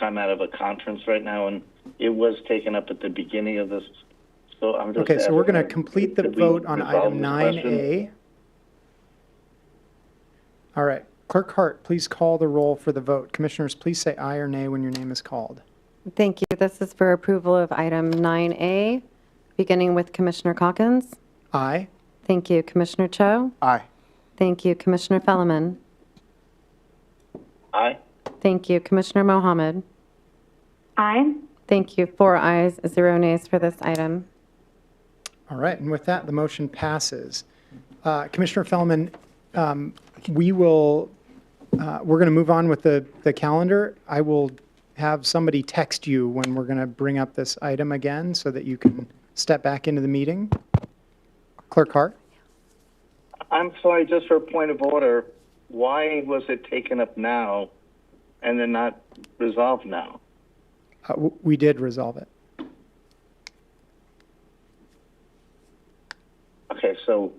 I'm out of a conference right now, and it was taken up at the beginning of this, so I'm just. Okay, so we're going to asking, complete the could we vote on resolve item this nine question? A. All right, Clerk Hart, please call the roll for the vote. Commissioners, please say aye or nay when your name is called. Thank you. This is for approval of item 9A, beginning with Commissioner Calkins. Aye? Thank you, Commissioner Cho. Aye. Thank you, Commissioner Fellman. Aye, Thank you, Commissioner Mohammed. Aye. Thank you. Four ayes, zero nays for this item. All right, and with that, the motion passes. Uh, Commissioner Fellman, um, we will, uh, we're going to move on with the, the calendar. I will have somebody text you when we're going to bring up this item again so that you can step back into the meeting. Clerk Hart? I'm sorry, just for a point of order, why was it taken up now and then not resolved now? Uh, w- We did resolve it. Okay, so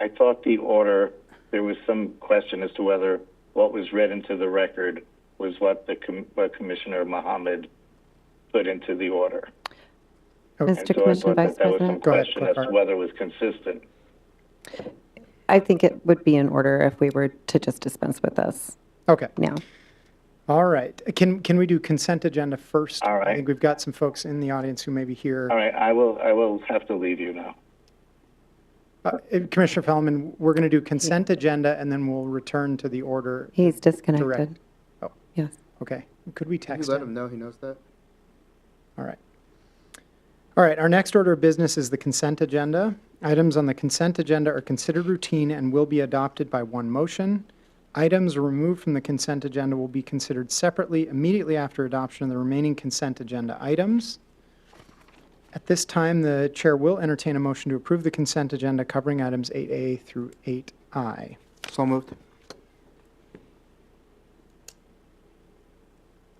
I thought the order, there was some question as to whether what was read into the record was what the, com- what Commissioner Mohammed put into the order. And Mr. so I Commissioner thought that Vice that was some President, Go ahead, question as to Clark. whether it was consistent. I think it would be in order if we were to just dispense with this Okay, now. all right. Can, can we do consent agenda first? All right. I think we've got some folks in the audience who may be here. All right, I will, I will have to leave you now. Uh, Commissioner Fellman, we're going to do consent agenda and then we'll return to the order. He's disconnected. Oh. Yes. Okay, could we Can you text let him? him know he knows that? All right. All right, our next order of business is the consent agenda. Items on the consent agenda are considered routine and will be adopted by one motion. Items removed from the consent agenda will be considered separately immediately after adoption of the remaining consent agenda items. At this time, the chair will entertain a motion to approve the consent agenda covering items 8A through 8I. So moved.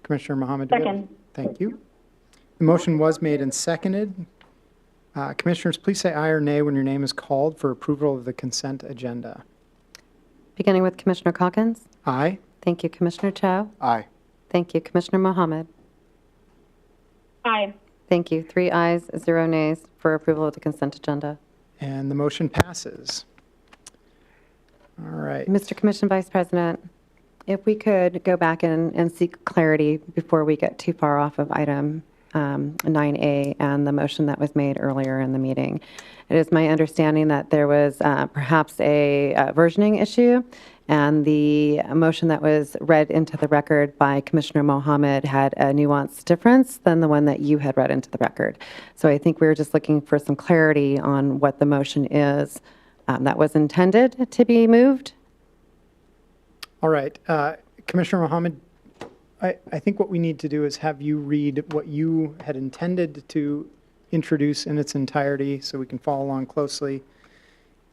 Commissioner Mohammed. do we have- Second. Thank you. The motion was made and seconded. Uh, Commissioners, please say aye or nay when your name is called for approval of the consent agenda. Beginning with Commissioner Calkins. Aye? Thank you, Commissioner Cho. Aye. Thank you, Commissioner Mohammed. Aye. Thank you. Three ayes, zero nays for approval of the consent agenda. And the motion passes. All right. Mr. Commission Vice President, if we could go back and, and seek clarity before we get too far off of item um, 9A and the motion that was made earlier in the meeting. It is my understanding that there was uh, perhaps a uh, versioning issue, and the motion that was read into the record by Commissioner Mohammed had a nuanced difference than the one that you had read into the record. So I think we were just looking for some clarity on what the motion is um, that was intended to be moved. All right. Uh, Commissioner Mohammed, I, I think what we need to do is have you read what you had intended to introduce in its entirety so we can follow along closely.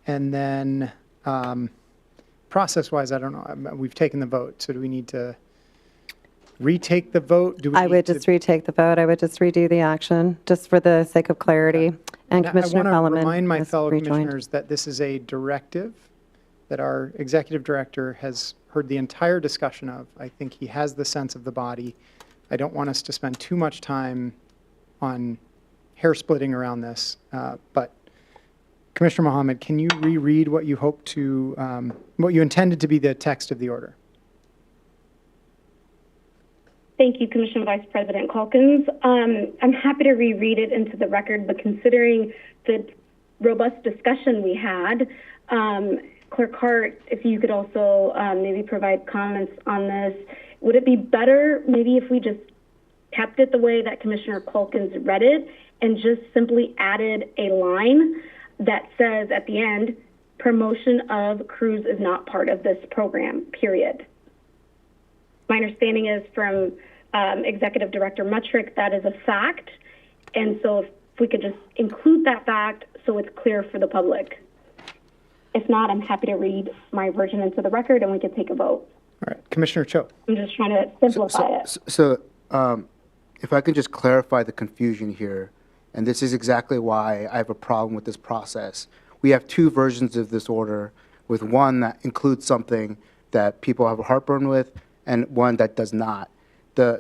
And then, um, process-wise, I don't know, I'm- we've taken the vote, so do we need to retake the vote? Do we I need would to- just retake the vote. I would just redo the action, just for the sake of clarity. And I- Commissioner I want Solomon to remind my has fellow rejoined. commissioners that this is a directive that our executive director has heard the entire discussion of. I think he has the sense of the body. I don't want us to spend too much time on hair splitting around this, uh, but Commissioner Mohammed, can you reread what you hope to, um, what you intended to be the text of the order? Thank you, Commissioner Vice President Calkins. Um, I'm happy to reread it into the record, but considering the robust discussion we had, um, Clerk Hart, if you could also um, maybe provide comments on this, would it be better maybe if we just kept it the way that Commissioner Calkins read it and just simply added a line that says at the end, promotion of crews is not part of this program, period? My understanding is from um, Executive Director Metric that is a fact. And so if we could just include that fact so it's clear for the public. If not, I'm happy to read my version into the record and we can take a vote. All right, Commissioner Cho. I'm just trying to simplify So, it. so- so, um, if I can just clarify the confusion here, and this is exactly why I have a problem with this process. We have two versions of this order, with one that includes something that people have a heartburn with, and one that does not. The,